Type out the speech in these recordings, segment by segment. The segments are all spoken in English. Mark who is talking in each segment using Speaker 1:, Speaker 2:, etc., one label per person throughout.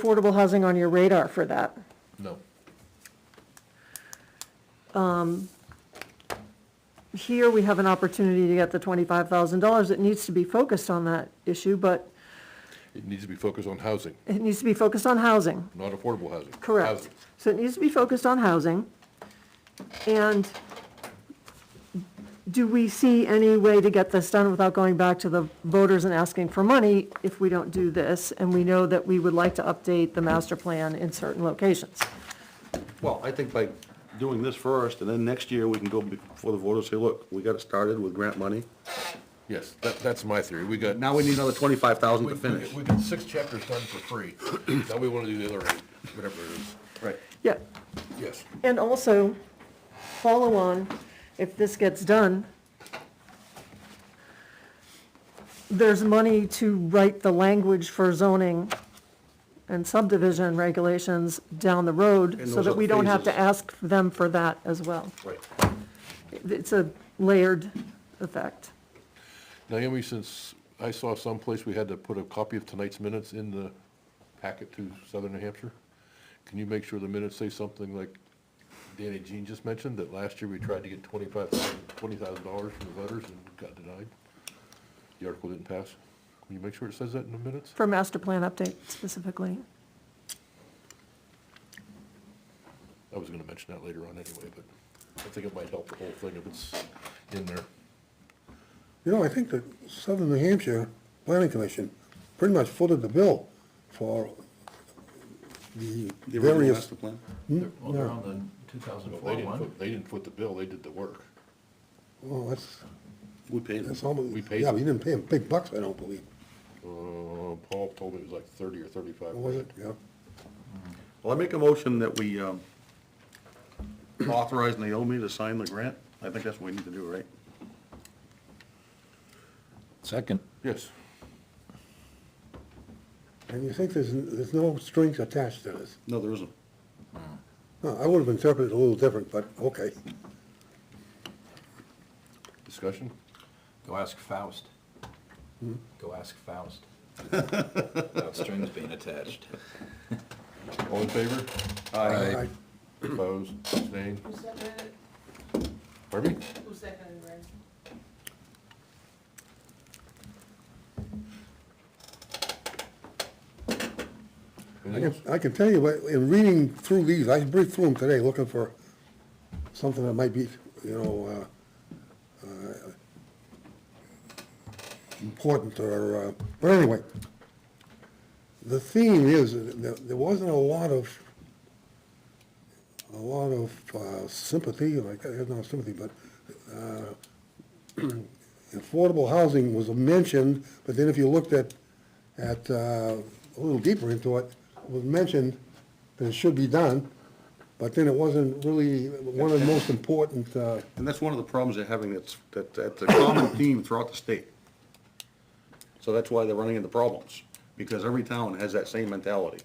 Speaker 1: affordable housing on your radar for that.
Speaker 2: No.
Speaker 1: Here, we have an opportunity to get the twenty-five thousand dollars. It needs to be focused on that issue, but
Speaker 2: It needs to be focused on housing,
Speaker 1: it needs to be focused on housing,
Speaker 2: not affordable housing.
Speaker 1: correct?
Speaker 2: Housing.
Speaker 1: So it needs to be focused on housing. And do we see any way to get this done without going back to the voters and asking for money if we don't do this? And we know that we would like to update the master plan in certain locations.
Speaker 3: Well, I think by doing this first, and then next year, we can go before the voters, say, look, we got it started with grant money.
Speaker 2: Yes, that, that's my theory. We got.
Speaker 3: Now we need another twenty-five thousand
Speaker 2: We
Speaker 3: to
Speaker 2: we
Speaker 3: finish.
Speaker 2: got we got six chapters done for free. Now we want to do the other eight, whatever it is.
Speaker 3: Right.
Speaker 1: Yeah,
Speaker 2: Yes.
Speaker 1: And also, follow on, if this gets done, there's money to write the language for zoning and subdivision regulations down the road,
Speaker 3: And
Speaker 1: so
Speaker 3: those
Speaker 1: that
Speaker 3: are
Speaker 1: we don't have to
Speaker 3: phases.
Speaker 1: ask them for that as well.
Speaker 3: Right.
Speaker 1: It's a layered effect.
Speaker 2: Naomi, since I saw someplace we had to put a copy of tonight's minutes in the packet to Southern New Hampshire, can you make sure the minutes say something like Danny Jean just mentioned, that last year we tried to get twenty-five thousand, twenty thousand dollars from the voters and got denied? The article didn't pass. Can you make sure it says that in the minutes?
Speaker 1: For master plan update specifically.
Speaker 2: I was gonna mention that later on anyway, but I think it might help the whole thing if it's in there.
Speaker 4: You know, I think the Southern New Hampshire Planning Commission pretty much footed the bill for the
Speaker 3: The original
Speaker 4: various, Hmm?
Speaker 3: master plan?
Speaker 5: Well, they're on the 2004
Speaker 2: They didn't
Speaker 5: one.
Speaker 2: foot, they didn't foot the bill, they did the work.
Speaker 4: well, that's,
Speaker 3: We paid
Speaker 4: that's
Speaker 3: it.
Speaker 4: almost,
Speaker 2: We paid
Speaker 4: yeah,
Speaker 2: them.
Speaker 4: but you didn't pay them big bucks, I don't believe,
Speaker 2: Uh, Paul told me it was like thirty or thirty-five.
Speaker 4: was it?
Speaker 2: grand.
Speaker 4: Yeah.
Speaker 3: Well, I make a motion that we um, authorize Naomi to sign the grant. I think that's what we need to do, right?
Speaker 5: Second.
Speaker 2: Yes,
Speaker 4: And you think there's, there's no strings attached to this?
Speaker 3: No, there isn't.
Speaker 4: No, I would have interpreted it a little different, but okay.
Speaker 2: discussion?
Speaker 5: Go ask Faust. Go ask Faust. Without strings being attached.
Speaker 2: All in favor?
Speaker 4: Aye.
Speaker 2: Opposed, abstained?
Speaker 6: Who seconded it?
Speaker 2: Pardon me?
Speaker 6: Who seconded it?
Speaker 4: I
Speaker 2: Anything
Speaker 4: can,
Speaker 2: else?
Speaker 4: I can tell you, but in reading through these, I breezed through them today looking for something that might be, you know, uh, uh, important or, uh, but anyway. The theme is, that there wasn't a lot of, a lot of uh, sympathy, like, there's no sympathy, but uh, affordable housing was mentioned, but then if you looked at, at, uh, a little deeper into it, it was mentioned that it should be done, but then it wasn't really one of the most important, uh,
Speaker 3: And that's one of the problems they're having, that's, that, that's a common theme throughout the state. So that's why they're running into problems, because every town has that same mentality.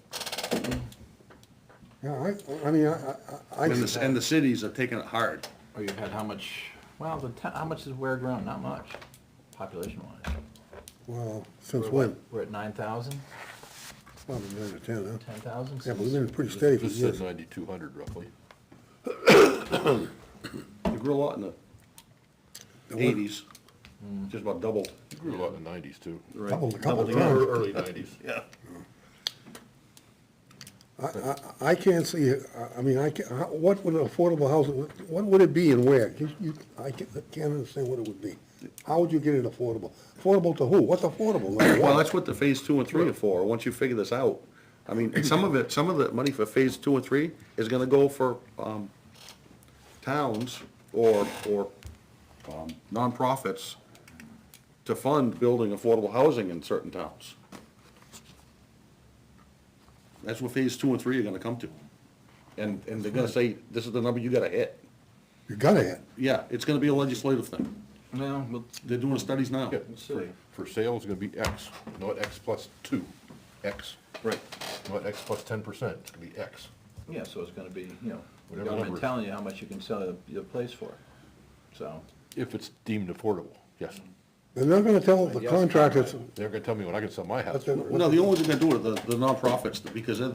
Speaker 4: yeah, I, I mean, I, I- I.
Speaker 3: And the, and the cities are taking it hard.
Speaker 5: Or you had how much, well, the, ta- how much is Ware grown? Not much, population wise.
Speaker 4: Well, since when?
Speaker 5: We're at 9,000,
Speaker 4: Probably nine or ten, huh?
Speaker 5: 10,000?
Speaker 4: Yeah, but we've been pretty steady for
Speaker 2: This said
Speaker 4: years.
Speaker 3: uh,
Speaker 2: ninety-two hundred roughly.
Speaker 3: They grew a lot in the eighties, just about doubled.
Speaker 2: It Grew a lot in the nineties too.
Speaker 3: right?
Speaker 4: Doubled a couple
Speaker 3: Doubled the-
Speaker 4: times.
Speaker 2: Ear- Early nineties.
Speaker 3: Yeah.
Speaker 4: I, I, I can't see, it. I, I mean, I can what would affordable housing, what would it be and where? You, you, I can't, I can't understand what it would be. How would you get it affordable? Affordable to who? What's affordable? Like
Speaker 3: Well,
Speaker 4: what?
Speaker 3: that's what the phase two and three are for, once you figure this out. I mean, and some of it, some of the money for phase two and three is gonna go for, um, towns or, or, um, nonprofits to fund building affordable housing in certain towns. That's what phase two and three are gonna come to. And, and they're gonna say, this is the number you gotta hit.
Speaker 4: You gotta hit.
Speaker 3: Yeah, it's gonna be a legislative thing.
Speaker 5: No, well,
Speaker 3: They're doing studies now.
Speaker 2: Yeah,
Speaker 5: see.
Speaker 2: for sale is gonna be X, not X plus two, X,
Speaker 3: Right.
Speaker 2: not X plus ten percent, it's gonna be X.
Speaker 5: yeah, so it's gonna be, you know, the
Speaker 2: Whatever number.
Speaker 5: government telling you how much you can sell your- your place for, so.
Speaker 2: If it's deemed affordable, yes.
Speaker 4: They're not gonna tell the contractors
Speaker 2: They're gonna tell me what I can sell my house
Speaker 4: what
Speaker 2: for.
Speaker 4: they're. what
Speaker 3: No, the only thing they do are the the nonprofits, because they're-